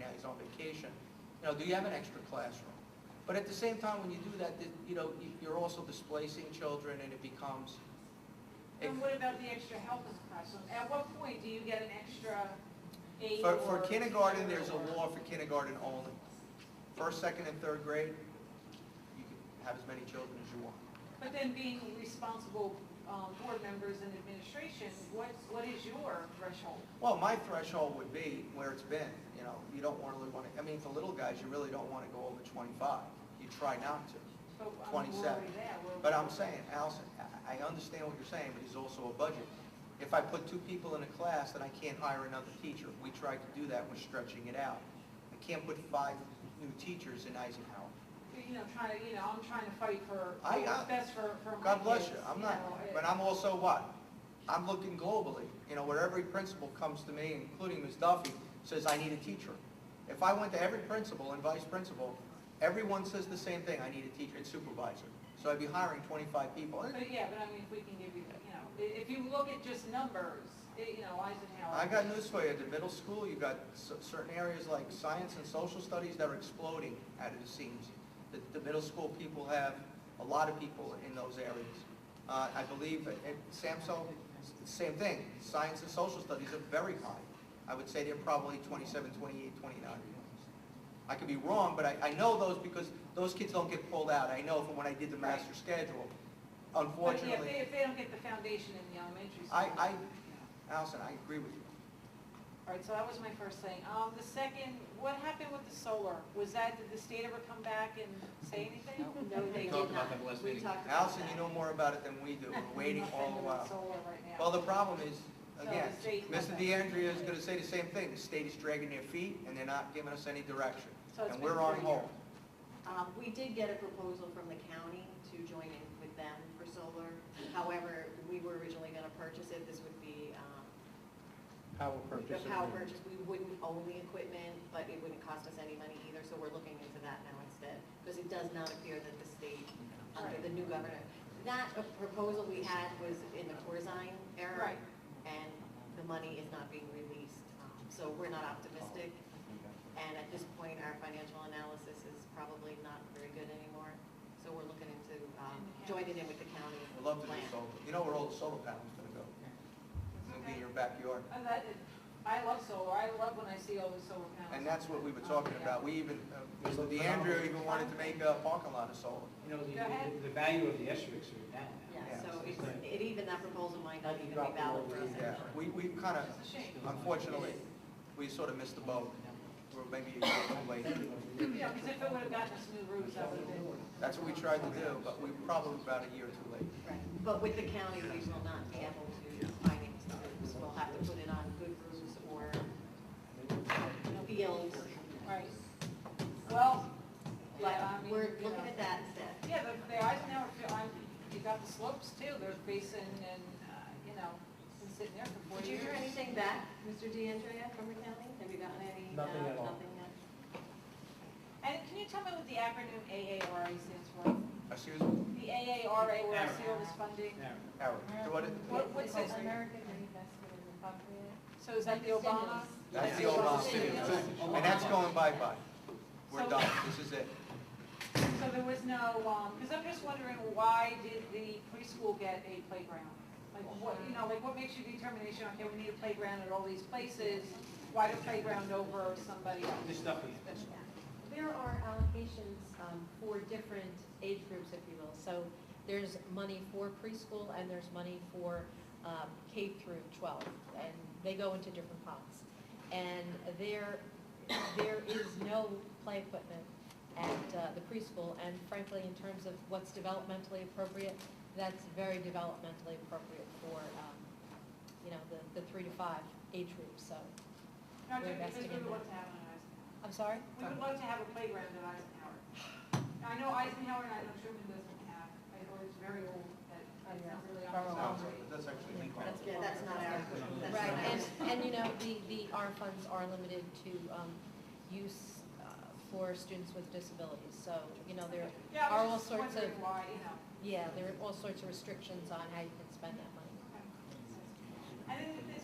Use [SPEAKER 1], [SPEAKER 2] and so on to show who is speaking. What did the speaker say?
[SPEAKER 1] now, he's on vacation, you know, do you have an extra classroom? But at the same time, when you do that, that, you know, you- you're also displacing children and it becomes, it-
[SPEAKER 2] And what about the extra help is possible? At what point do you get an extra aide
[SPEAKER 1] for,
[SPEAKER 2] or?
[SPEAKER 1] for kindergarten, there's a
[SPEAKER 2] teacher or-
[SPEAKER 1] law for kindergarten only. First, second, and third grade, you can have as many children as you want.
[SPEAKER 2] But then being responsible um, board members and administration, what, what is your threshold?
[SPEAKER 1] Well, my threshold would be where it's been, you know, you don't wanna really wanna, I mean, for little guys, you really don't wanna go over twenty-five. You try not to.
[SPEAKER 2] So, I mean, We're
[SPEAKER 1] 27.
[SPEAKER 2] already there. We're-
[SPEAKER 1] But I'm saying, Allison, I- I understand what you're saying, but there's also a budget. If I put two people in a class, then I can't hire another teacher. We tried to do that, we're stretching it out. I can't put five new teachers in Eisenhower.
[SPEAKER 2] You know, trying to, you know, I'm trying to fight for,
[SPEAKER 1] I- I-
[SPEAKER 2] what's best for, for my kids.
[SPEAKER 1] God bless you, I'm
[SPEAKER 2] you
[SPEAKER 1] not,
[SPEAKER 2] know, it-
[SPEAKER 1] but I'm also what? I'm looking globally, you know, where every principal comes to me, including Ms. Duffy, says, I need a teacher. If I went to every principal and vice principal, everyone says the same thing, I need a teacher and supervisor. So I'd be hiring twenty-five people. And
[SPEAKER 2] But yeah, but I mean, if we can give you, you know, i- if you look at just numbers, i- you know, Eisenhower.
[SPEAKER 1] I got news for you, at the middle school, you've got c- certain areas like science and social studies that are exploding out of the seams. The, the middle school people have, a lot of people in those areas. Uh, I believe at at SAMSO, s- same thing, science and social studies are very high. I would say they're probably 27, 28, 29. I could be wrong, but I, I know those because those kids don't get pulled out. I know from when I did the master schedule,
[SPEAKER 2] But yeah, if
[SPEAKER 1] unfortunately.
[SPEAKER 2] they, if they don't get the foundation in the elementary school.
[SPEAKER 1] I- I-
[SPEAKER 2] you know.
[SPEAKER 1] Allison, I agree with you.
[SPEAKER 2] All right, so that was my first thing. Um, the second, what happened with the solar? Was that, did the state ever come back and say anything?
[SPEAKER 3] No, they did
[SPEAKER 4] talked about
[SPEAKER 3] not.
[SPEAKER 4] that last
[SPEAKER 3] We
[SPEAKER 4] meeting.
[SPEAKER 3] talked about
[SPEAKER 1] Allison,
[SPEAKER 3] that.
[SPEAKER 1] you know more about it than we do, we're waiting all the
[SPEAKER 2] Nothing
[SPEAKER 1] while.
[SPEAKER 2] with solar right now.
[SPEAKER 1] Well, the problem is,
[SPEAKER 2] So
[SPEAKER 1] again,
[SPEAKER 2] the state-
[SPEAKER 1] Mr. DeAndrea is gonna say the same thing, the state is dragging their feet and they're not giving us any direction.
[SPEAKER 2] So it's
[SPEAKER 1] And
[SPEAKER 2] been
[SPEAKER 1] we're on
[SPEAKER 2] three
[SPEAKER 1] hold.
[SPEAKER 3] Um, we did get a proposal from the county to join in with them for solar. However, we were originally gonna purchase it, this would be, um,
[SPEAKER 5] Power
[SPEAKER 3] the
[SPEAKER 5] purchase.
[SPEAKER 3] power
[SPEAKER 5] agreement.
[SPEAKER 3] purchase, we wouldn't own the equipment, but it wouldn't cost us any money either, so we're looking into that now instead. Because it does not appear that the state, under the new governor, that uh, proposal we had was in the Corzine era.
[SPEAKER 2] Right.
[SPEAKER 3] And the money is not being released, um, so we're not optimistic. And at this point, our financial analysis is probably not very good anymore, so we're looking into, um, joining in with the county.
[SPEAKER 1] We'd love to do
[SPEAKER 3] plan.
[SPEAKER 1] solar, you know where all the solar panels gonna go? It'll be in your backyard.
[SPEAKER 2] And that is- I love solar. I love when I see all the solar panels.
[SPEAKER 1] And that's what we were
[SPEAKER 2] Oh,
[SPEAKER 1] talking
[SPEAKER 2] yeah.
[SPEAKER 1] about, we even, uh, Mr. DeAndrea even wanted to make a parking lot of solar.
[SPEAKER 6] You know,
[SPEAKER 2] Go
[SPEAKER 6] the,
[SPEAKER 2] ahead.
[SPEAKER 6] the- the value of the asterisks are down now.
[SPEAKER 1] Yeah.
[SPEAKER 3] Yeah, so it's, it even, that proposal might not even be valid for us.
[SPEAKER 1] Yeah, we, we kinda,
[SPEAKER 2] It's a shame.
[SPEAKER 1] unfortunately, we sort of missed the boat, we're maybe a year too late.
[SPEAKER 2] Yeah, because if it would have gotten us new roofs, that would have been.
[SPEAKER 1] That's what we tried to do, but we were probably about a year too late.
[SPEAKER 3] Right, but with the county, we will not be able to finance the roofs, we'll have to put it on good roofs or fields,
[SPEAKER 2] Right. Well,
[SPEAKER 3] but
[SPEAKER 2] yeah, I mean,
[SPEAKER 3] we're
[SPEAKER 2] you know.
[SPEAKER 3] looking at that instead.
[SPEAKER 2] Yeah, the, the Eisenhower, Fi- I'm, you got the slopes too. There's basin and, uh, you know, been sitting there for four
[SPEAKER 3] Did you
[SPEAKER 2] years.
[SPEAKER 3] hear anything back, Mr. DeAndrea, from the county? Have you gotten any? uh,
[SPEAKER 5] Nothing at all.
[SPEAKER 3] Nothing yet?
[SPEAKER 2] And can you tell me what the acronym AARA stands for?
[SPEAKER 1] Excuse me,
[SPEAKER 2] The AARA, where I see all this funding?
[SPEAKER 6] Now,
[SPEAKER 1] Howard, what it-
[SPEAKER 2] What, what's this?
[SPEAKER 7] American Reinvestment and Recovery Act.
[SPEAKER 2] So is that the Obama?
[SPEAKER 1] That's the Obama
[SPEAKER 6] stimulus.
[SPEAKER 1] And that's going bye-bye. We're done, this is it.
[SPEAKER 2] So there was no, um, because I'm just wondering, why did the preschool get a playground? Like, what, you know, like, what makes your determination, okay, we need a playground at all these places, why the playground over somebody else?
[SPEAKER 6] This stuff is,
[SPEAKER 7] There are allocations um, for different age groups, if you will. So there's money for preschool and there's money for um, K through 12, and they go into different pots. And there, there is no play equipment at uh, the preschool, and frankly, in terms of what's developmentally appropriate, that's very developmentally appropriate for, um, you know, the, the three to five age group, so,
[SPEAKER 2] No, just because
[SPEAKER 7] investing
[SPEAKER 2] we
[SPEAKER 7] in
[SPEAKER 2] would
[SPEAKER 7] that.
[SPEAKER 2] love to have an Eisenhower.
[SPEAKER 7] I'm sorry?
[SPEAKER 2] We would love to have a playground at Eisenhower. Now, I know Eisenhower and I know Truman doesn't have, I know it's very old, that, it's not really on the
[SPEAKER 1] Oh,
[SPEAKER 2] boundary.
[SPEAKER 1] That's actually.
[SPEAKER 3] Yeah, that's not our, that's not
[SPEAKER 7] Right,
[SPEAKER 3] our.
[SPEAKER 7] and, and you know, the, the R funds are limited to um, use uh, for students with disabilities, so, you know, there,
[SPEAKER 2] Yeah, I
[SPEAKER 7] Are all
[SPEAKER 2] was just
[SPEAKER 7] sorts of-
[SPEAKER 2] wondering why, you know.
[SPEAKER 7] yeah, there are all sorts of restrictions on how you can spend that money.
[SPEAKER 2] And then